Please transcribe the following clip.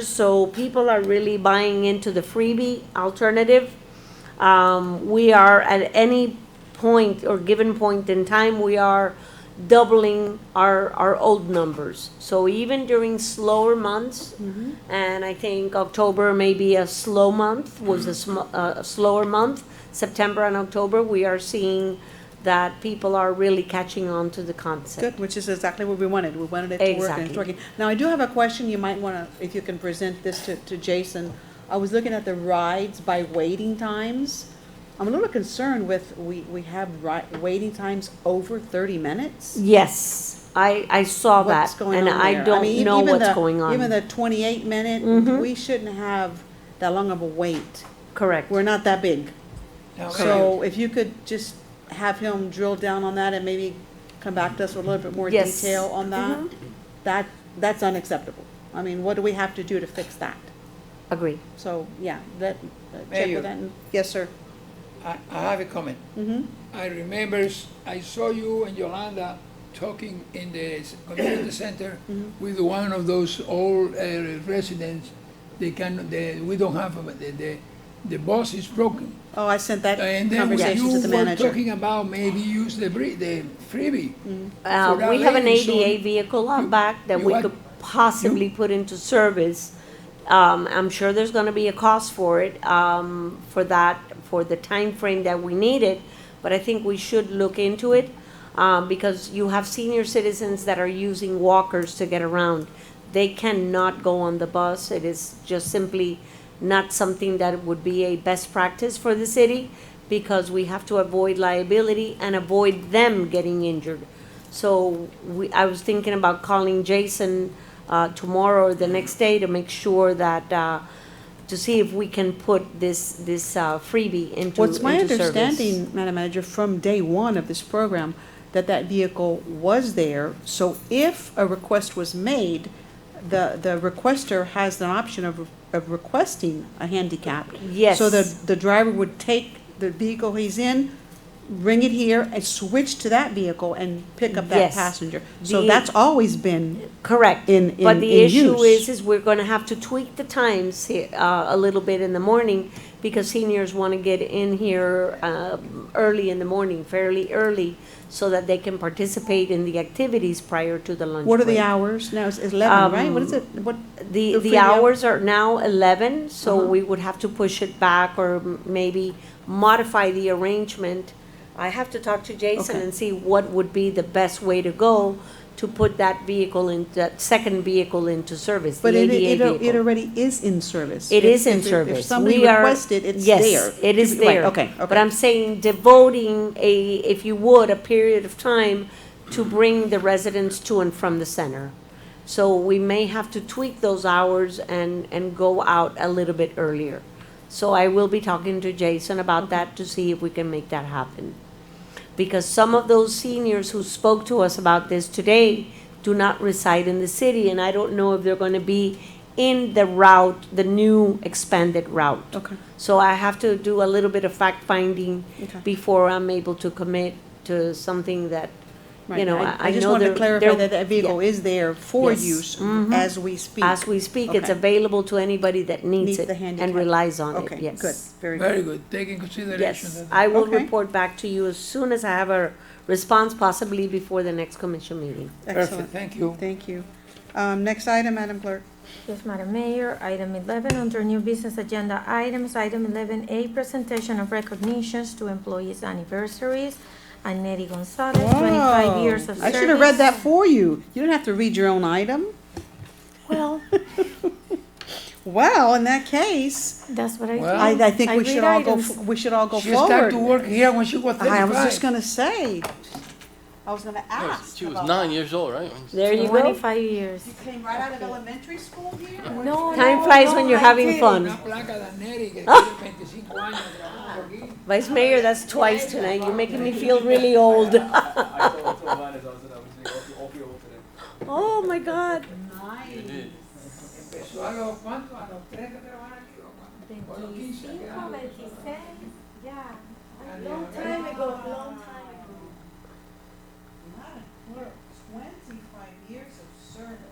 so people are really buying into the freebie alternative. Um, we are at any point or given point in time, we are doubling our, our old numbers. So even during slower months, Mm-hmm. and I think October may be a slow month, was a sm- a slower month, September and October, we are seeing that people are really catching on to the concept. Good, which is exactly what we wanted. We wanted it to work and it's Exactly. working. Now, I do have a question you might want to, if you can present this to, to Jason. I was looking at the rides by waiting times. I'm a little concerned with, we, we have ri- waiting times over thirty minutes? Yes, I, I saw What's that, going on and I there? mean, e-, don't know even what's the- going Even on. Mm-hmm. the twenty-eight minute, we shouldn't have that long of a wait. Correct. We're not that big. So if you could just have him drill down on that and maybe come back to us with a little bit more Yes. detail on that, that, that's unacceptable. I mean, what do we have to do to fix that? Agree. So, yeah, that, uh, check Mayor. with that. and- Mm-hmm. Yes, sir. I, I have a comment. I remember, I saw you and Yolanda talking in the s- community center Mm-hmm. with one of those old uh, residents. They can, they, we don't have, a- the, the, the bus is broken. Oh, I sent that And then when conversation to you the were manager. Mm-hmm. talking about maybe use the bre, the freebie. Uh, For that we have an lady, so ADA vehicle out you- back that you we had- could possibly put into service. Um, I'm sure there's gonna be a cost for it, um, for that, for the time frame that we need it, but I think we should look into it, um, because you have senior citizens that are using walkers to get around. They cannot go on the bus, it is just simply not something that would be a best practice for the city, because we have to avoid liability and avoid them getting injured. So we, I was thinking about calling Jason uh, tomorrow or the next day to make sure that, uh, to see if we can put this, this uh, freebie into, Well, it's my into service. understanding, Madam Manager, from day one of this program, that that vehicle was there. So if a request was made, the, the requester has an option of, of requesting a handicap. Yes. So the, the driver would take the vehicle he's in, bring it here, and switch to that vehicle and pick up that Yes. passenger. So The- that's always been, Correct. in- But in- the in issue use. is, is we're gonna have to tweak the times he- uh, a little bit in the morning because seniors wanna get in here um, early in the morning, fairly early, so that they can participate in the activities prior to the lunch break. what are the hours? Now, it's eleven, right? What is it? What, The, The the free hour- hours are now eleven, so Uh-huh. we would have to push it back or m- maybe modify the arrangement. I have to talk to Jason Okay. and see what would be the best way to go to put that vehicle in, that second vehicle into service, the But it, ADA it, it vehicle. already is in service. It If- is in if- If service. somebody We are- requested, it's there. yes, it is Right, there. Okay, okay. But I'm saying devoting a, if you would, a period of time to bring the residents to and from the center. So we may have to tweak those hours and, and go out a little bit earlier. So I will be talking to Jason about that to see if we can make that happen. Because some of those seniors who spoke to us about this today do not reside in the city, and I don't know if they're gonna be in the route, the new expanded route. Okay. So I have to do a little bit of fact finding Okay. before I'm able to commit to something that, you Right. know, I, I just know wanted they're. to clarify they're- that that vehicle yeah. is there for Yes. use Mhm. as we speak. As we speak, it's Okay. available to anybody that needs Needs it the and handicap. relies on it, Okay, yes. good, very good. Very good, take in consideration Yes, that. I will Okay. report back to you as soon as I have a response, possibly before the next commission meeting. Excellent. Perfect, thank you. Thank you. Um, next item, Madam Clerk. Yes, Madam Mayor, item eleven, under new business agenda items, item eleven A, presentation of recognitions to employees' anniversaries. Annette Gonzalez, twenty-five years of Whoa. I service. should have read that for you. You don't have to read your own item. Well, Well, in that case, that's what I do. Well, I, I think I we read should all go, items. f- we should all go She started forward. to work here when she was I was just thirty-five. gonna say, I was gonna Yes, ask. She was about nine years old, right? When- There you go. Twenty-five years. that. Came right out of elementary school here? No, Time no, flies no, when you're I having didn't. fun. Una placa de Neri que tiene 25 años trabajando aquí. Vice Mayor, that's twice tonight. You're making me feel really old. I told, told Linus, I was like, I was like, I'll be over today. Oh, my God. You did. Empezó a los cuantos, a los tres que trabajan aquí, o cuatro. O los 15 que eran. yeah, Long time ago, long time ago. Twenty-five years of service.